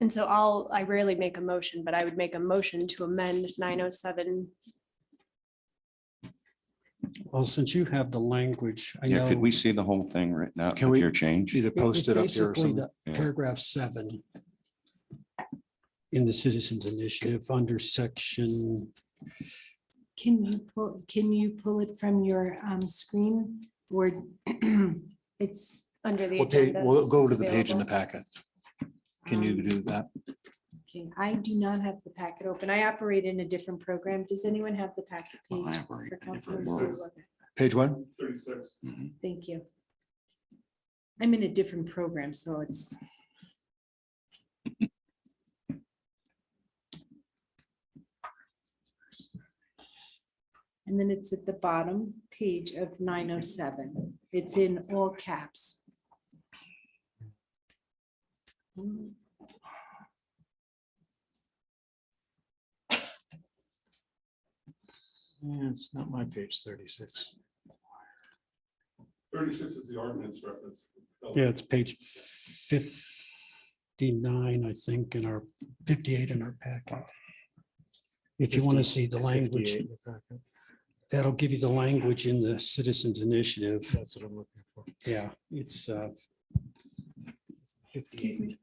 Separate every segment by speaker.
Speaker 1: And so I'll, I rarely make a motion, but I would make a motion to amend nine oh seven.
Speaker 2: Well, since you have the language, I
Speaker 3: Yeah,
Speaker 2: know.
Speaker 3: could we see the whole thing right now
Speaker 4: Can
Speaker 3: with
Speaker 4: we-
Speaker 3: your change?
Speaker 4: Either
Speaker 2: It-
Speaker 4: post it up here or
Speaker 2: basically
Speaker 4: something.
Speaker 2: the
Speaker 3: Yeah.
Speaker 2: Paragraph seven. In the Citizens Initiative under section,
Speaker 5: Can you pull, can you pull it from your um, screen where it's,
Speaker 1: under the
Speaker 4: We'll page,
Speaker 1: agenda.
Speaker 4: we'll go to the
Speaker 1: It's
Speaker 4: page in the
Speaker 1: available.
Speaker 4: packet. Can you
Speaker 5: um,
Speaker 4: do that?
Speaker 5: okay, I do not have the packet open. I operate in a different program. Does anyone have the packet
Speaker 3: Well, I
Speaker 5: page?
Speaker 3: operate in
Speaker 5: for
Speaker 3: a
Speaker 5: Councilor
Speaker 3: different
Speaker 5: Sue?
Speaker 3: world.
Speaker 5: Okay,
Speaker 4: Page one?
Speaker 6: Thirty-six.
Speaker 5: Thank you. I'm in a different program, so it's. And then it's at the bottom page of nine oh seven. It's in all caps. Mm,
Speaker 4: Yeah, it's not my page thirty-six.
Speaker 6: Thirty-six is the ordinance reference.
Speaker 2: yeah, it's page fifty-nine, I think, in our fifty-eight in our packet. If you want to see the language, that'll give you the language in the Citizens Initiative.
Speaker 4: That's what I'm looking for.
Speaker 2: Yeah, it's uh,
Speaker 5: Excuse me.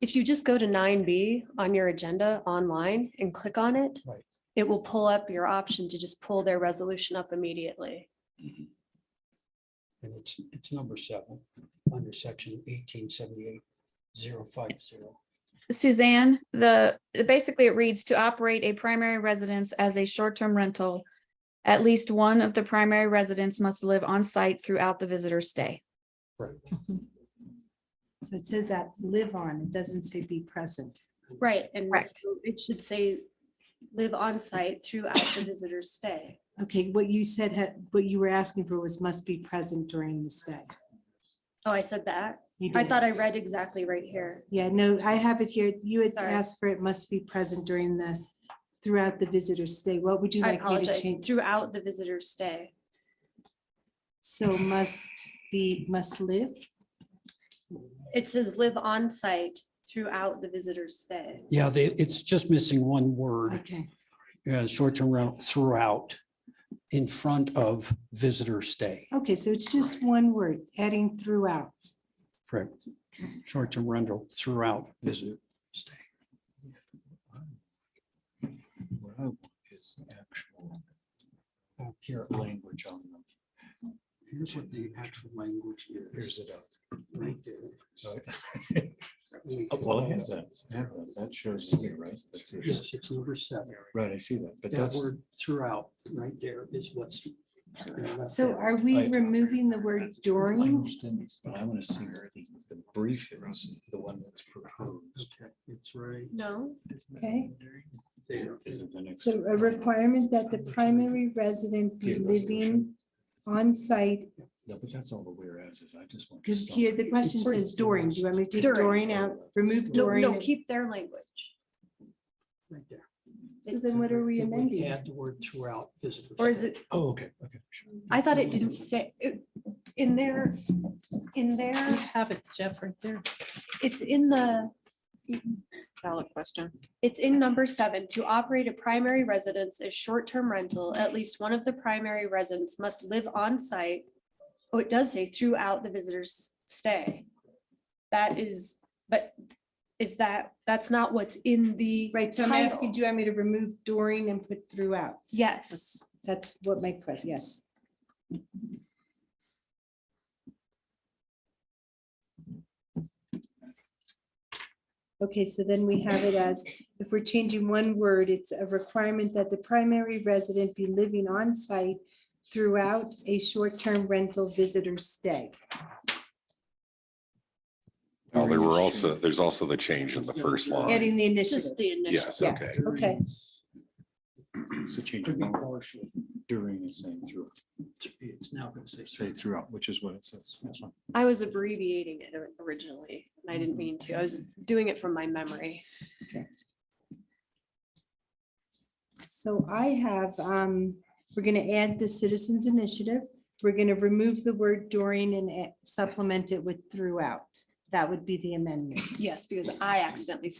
Speaker 1: If you just go to nine B on your agenda online and click on it,
Speaker 2: Right.
Speaker 1: it will pull up your option to just pull their resolution up immediately.
Speaker 2: and it's, it's number seven, under section eighteen seventy-eight zero five zero.
Speaker 7: Suzanne, the, basically it reads to operate a primary residence as a short-term rental. At least one of the primary residents must live on site throughout the visitor's stay.
Speaker 5: So it says that live on, it doesn't say be present.
Speaker 1: Right. And
Speaker 7: Correct.
Speaker 1: so it should say, live on site throughout the visitor's stay.
Speaker 5: Okay, what you said, had- what you were asking for was must be present during the stay.
Speaker 1: Oh, I said that.
Speaker 5: You
Speaker 1: I
Speaker 5: did.
Speaker 1: thought I read exactly right here.
Speaker 5: Yeah, no, I have it here. You had
Speaker 1: Sorry.
Speaker 5: asked for it must be present during the, throughout the visitor's stay. What would you
Speaker 1: I
Speaker 5: like me to
Speaker 1: apologize.
Speaker 5: change?
Speaker 1: Throughout the visitor's stay.
Speaker 5: So must be, must live?
Speaker 1: It says live on site throughout the visitor's stay.
Speaker 2: Yeah, they, it's just missing one word,
Speaker 5: Okay,
Speaker 2: uh, short-term rental throughout, in front of visitor stay,
Speaker 5: okay, so it's just one word, adding throughout.
Speaker 2: correct? Short-term rental throughout visitor stay.
Speaker 4: What I want is the actual
Speaker 2: Oh, Here,
Speaker 4: language on them.
Speaker 2: here's what the actual language is.
Speaker 4: Here's it up.
Speaker 2: Right there.
Speaker 4: So- Oh, Well, I have that. I have that. That shows here, right? That's it.
Speaker 2: Yes, it's number seven.
Speaker 4: Right, I see that, but
Speaker 2: That
Speaker 4: that's,
Speaker 2: word throughout, right there is what's. left
Speaker 5: So
Speaker 2: out.
Speaker 5: are we
Speaker 4: Right.
Speaker 5: removing the word
Speaker 4: I
Speaker 5: during?
Speaker 4: understand this, but I want to see what the, the brief is, the one that's proposed.
Speaker 2: Okay, It's right.
Speaker 1: No,
Speaker 5: Okay.
Speaker 2: there.
Speaker 4: Is it the next-
Speaker 5: So a requirement that the primary resident be
Speaker 4: Here,
Speaker 5: living
Speaker 4: resolution.
Speaker 5: on site.
Speaker 4: No, but that's all the whereas is. I just want.
Speaker 5: because here the question
Speaker 2: During.
Speaker 5: says during. Do you want me to take
Speaker 1: During.
Speaker 5: during out, remove
Speaker 1: no,
Speaker 5: during?
Speaker 1: no,
Speaker 5: and-
Speaker 1: keep their language.
Speaker 2: Right there.
Speaker 5: So then what are we
Speaker 2: It would
Speaker 5: amending?
Speaker 2: Add the word throughout visitor.
Speaker 1: Or is
Speaker 2: stay.
Speaker 1: it,
Speaker 4: Oh, okay, okay. sure.
Speaker 1: I thought it didn't say, it- in their, in their,
Speaker 8: Have it, Jeff, right there.
Speaker 1: it's in the,
Speaker 8: Valid question.
Speaker 1: it's in number seven. To operate a primary residence as short-term rental, at least one of the primary residents must live on site. Oh, it does say throughout the visitor's stay. That is, but is that, that's not what's in the.
Speaker 5: Right, so I'm asking,
Speaker 1: title.
Speaker 5: do you want me to remove during and put throughout?
Speaker 1: Yes.
Speaker 5: That's what my question, yes. Okay, so then we have it as, if we're changing one word, it's a requirement that the primary resident be living on site throughout a short-term rental visitor stay.
Speaker 6: Well, Oh, there were also, there's also the change in the first line.
Speaker 5: Adding the initiative,
Speaker 1: Just the initial.
Speaker 6: Yes,
Speaker 5: yeah.
Speaker 6: okay.
Speaker 5: okay.
Speaker 4: So change
Speaker 2: Could be
Speaker 4: it
Speaker 2: partial.
Speaker 4: during and saying through,
Speaker 2: It's now going to
Speaker 4: say
Speaker 2: say.
Speaker 4: throughout, which is what it says. That's fine.
Speaker 1: I was abbreviating it or- originally, and I didn't mean to. I was doing it from my memory.
Speaker 5: So I have, um, we're gonna add the citizens initiative. We're gonna remove the word during and a- supplement it with throughout. That would be the amendment.
Speaker 1: Yes, because I accidentally